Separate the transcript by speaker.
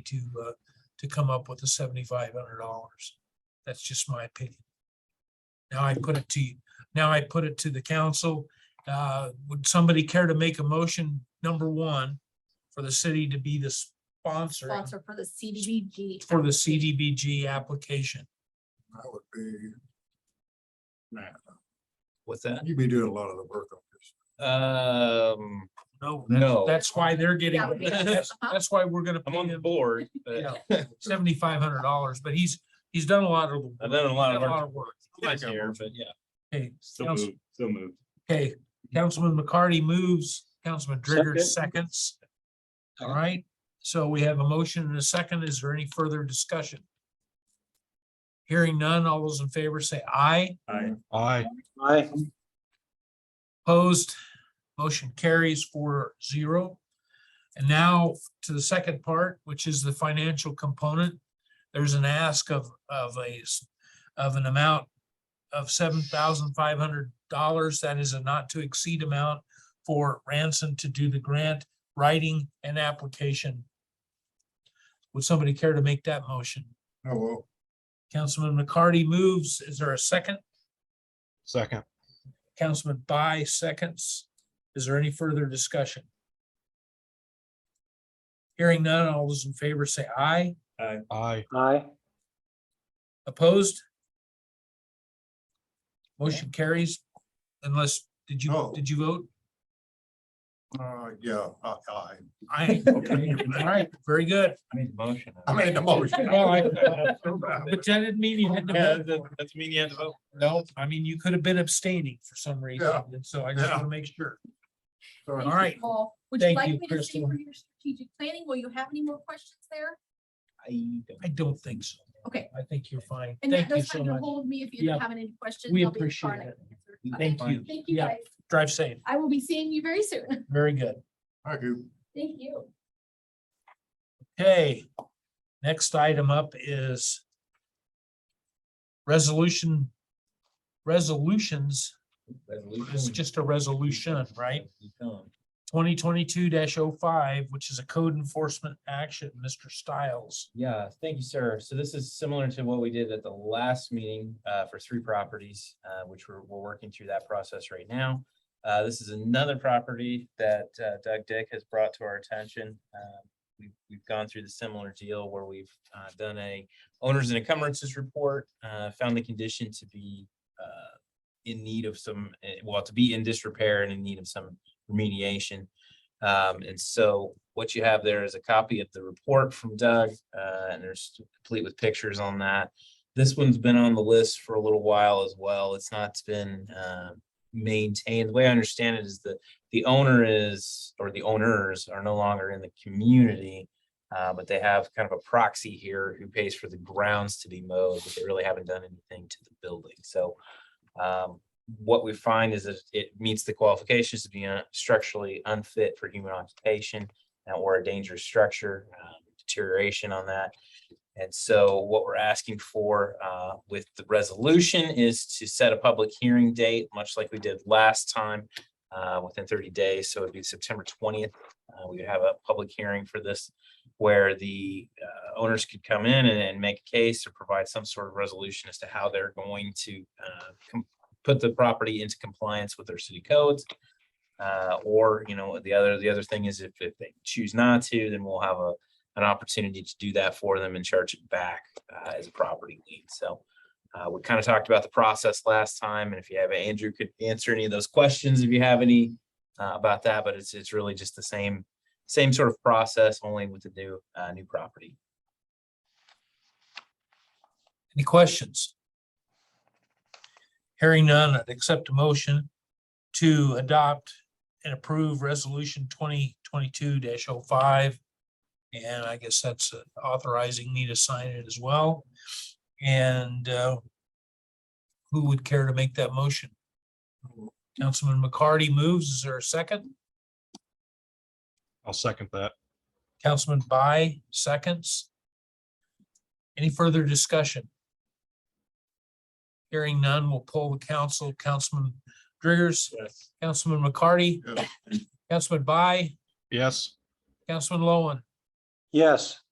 Speaker 1: to, uh, to come up with the seventy-five hundred dollars. That's just my opinion. Now I put it to you, now I put it to the council. Uh, would somebody care to make a motion, number one, for the city to be the sponsor
Speaker 2: sponsor for the CDBG.
Speaker 1: for the CDBG application?
Speaker 3: That would be,
Speaker 4: with that.
Speaker 3: you'd be doing a lot of the work on this.
Speaker 4: Um,
Speaker 1: No,
Speaker 4: no,
Speaker 1: that's why they're getting,
Speaker 2: That would be-
Speaker 1: that's, that's why we're gonna
Speaker 4: I'm
Speaker 1: pay
Speaker 4: on the
Speaker 1: him
Speaker 4: board, but
Speaker 1: seventy-five hundred dollars, but he's, he's done a lot of. the
Speaker 4: I've done a lot of
Speaker 1: done
Speaker 4: work
Speaker 1: work.
Speaker 4: this year, but yeah.
Speaker 1: Okay,
Speaker 5: So
Speaker 1: Council-
Speaker 5: moved, so moved.
Speaker 1: Okay, Councilman McCarty moves, Councilman Driggers seconds. All right, so we have a motion and a second. Is there any further discussion? Hearing none, all those in favor say aye.
Speaker 5: I,
Speaker 6: Aye.
Speaker 1: Opposed, motion carries four zero. And now to the second part, which is the financial component. There's an ask of, of a, s- of an amount of seven thousand five hundred dollars. That is a not to exceed amount for Ransom to do the grant writing and application. Would somebody care to make that motion?
Speaker 3: Oh, well,
Speaker 1: Councilman McCarty moves. Is there a second?
Speaker 6: Second.
Speaker 1: Councilman by seconds. Is there any further discussion? Hearing none, all those in favor say aye.
Speaker 6: Aye.
Speaker 1: Opposed? Motion carries unless, did you,
Speaker 3: No.
Speaker 1: did you vote?
Speaker 3: uh, yeah, I, I,
Speaker 1: Aye. okay, all right, very good.
Speaker 4: I made the motion.
Speaker 3: I made the motion.
Speaker 1: Well, I- But that didn't mean you had to
Speaker 4: Yeah,
Speaker 1: vote.
Speaker 4: that- That's mean you had to vote.
Speaker 1: No, I mean, you could have been abstaining for some reason,
Speaker 3: Yeah.
Speaker 1: and so I just want
Speaker 3: Yeah.
Speaker 1: to make sure.
Speaker 3: Sorry.
Speaker 1: All right.
Speaker 2: Paul, Would you
Speaker 1: Thank you,
Speaker 2: like me to see
Speaker 1: Crystal.
Speaker 2: for your strategic planning? Will you have any more questions there?
Speaker 1: I don't think so.
Speaker 2: Okay.
Speaker 1: I think you're fine.
Speaker 2: And
Speaker 1: Thank you
Speaker 2: that's
Speaker 1: so
Speaker 2: fine, you'll
Speaker 1: much.
Speaker 2: hold me if you
Speaker 1: Yeah.
Speaker 2: have any questions.
Speaker 1: We
Speaker 2: I'll be in
Speaker 1: appreciate
Speaker 2: front.
Speaker 1: it.
Speaker 2: Okay,
Speaker 1: Thank you.
Speaker 2: Thank you
Speaker 1: Yeah.
Speaker 2: guys.
Speaker 1: Drive safe.
Speaker 2: I will be seeing you very soon.
Speaker 1: Very good.
Speaker 3: Thank you.
Speaker 2: Thank you.
Speaker 1: Okay, next item up is resolution, resolutions, it's just a resolution, right? Twenty twenty-two 5 which is a code enforcement action, Mr. Stiles.
Speaker 7: Yeah, thank you, sir. So this is similar to what we did at the last meeting uh, for three properties, uh, which we're, we're working through that process right now. Uh, This is another property that uh, Doug Dick has brought to our attention. Uh, We've, we've gone through the similar deal where we've uh, done a owners and encumbrances report, uh, found the condition to be uh, in need of some, eh, well, to be in disrepair and in need of some remediation. Um, and so what you have there is a copy of the report from Doug, uh, and there's complete with pictures on that. This one's been on the list for a little while as well. It's not been, um maintained. The way I understand it is that the owner is, or the owners are no longer in the community. Uh, but they have kind of a proxy here who pays for the grounds to be mowed, but they really haven't done anything to the building. So, um, what we find is that it meets the qualifications to be un- structurally unfit for human occupation uh, or a dangerous structure, um, deterioration on that. And so what we're asking for uh, with the resolution is to set a public hearing date, much like we did last time, uh, within 30 days. So it'd be September 20th. Uh, We would have a public hearing for this where the uh, owners could come in and- and make a case or provide some sort of resolution as to how they're going to uh, com- put the property into compliance with their city codes. Uh, or, you know, the other, the other thing is if, if they choose not to, then we'll have a, an opportunity to do that for them and charge it back, uh, as a property lien. So, uh, we kind of talked about the process last time, and if you have, Andrew could answer any of those questions if you have any, uh, about that, but it's, it's really just the same, same sort of process, only with the new, uh, new property.
Speaker 1: Any questions? Hearing none, I'd accept a motion to adopt and approve resolution twenty twenty-two 5 And I guess that's uh, authorizing me to sign it as well. And uh, who would care to make that motion? Councilman McCarty moves. Is there a second?
Speaker 6: I'll second that.
Speaker 1: Councilman by seconds. Any further discussion? Hearing none, we'll poll the council. Councilman Driggers,
Speaker 5: Yes.
Speaker 1: Councilman McCarty,
Speaker 3: Yeah.
Speaker 1: Councilman by,
Speaker 6: Yes.
Speaker 1: Councilman Lowen,
Speaker 8: Yes,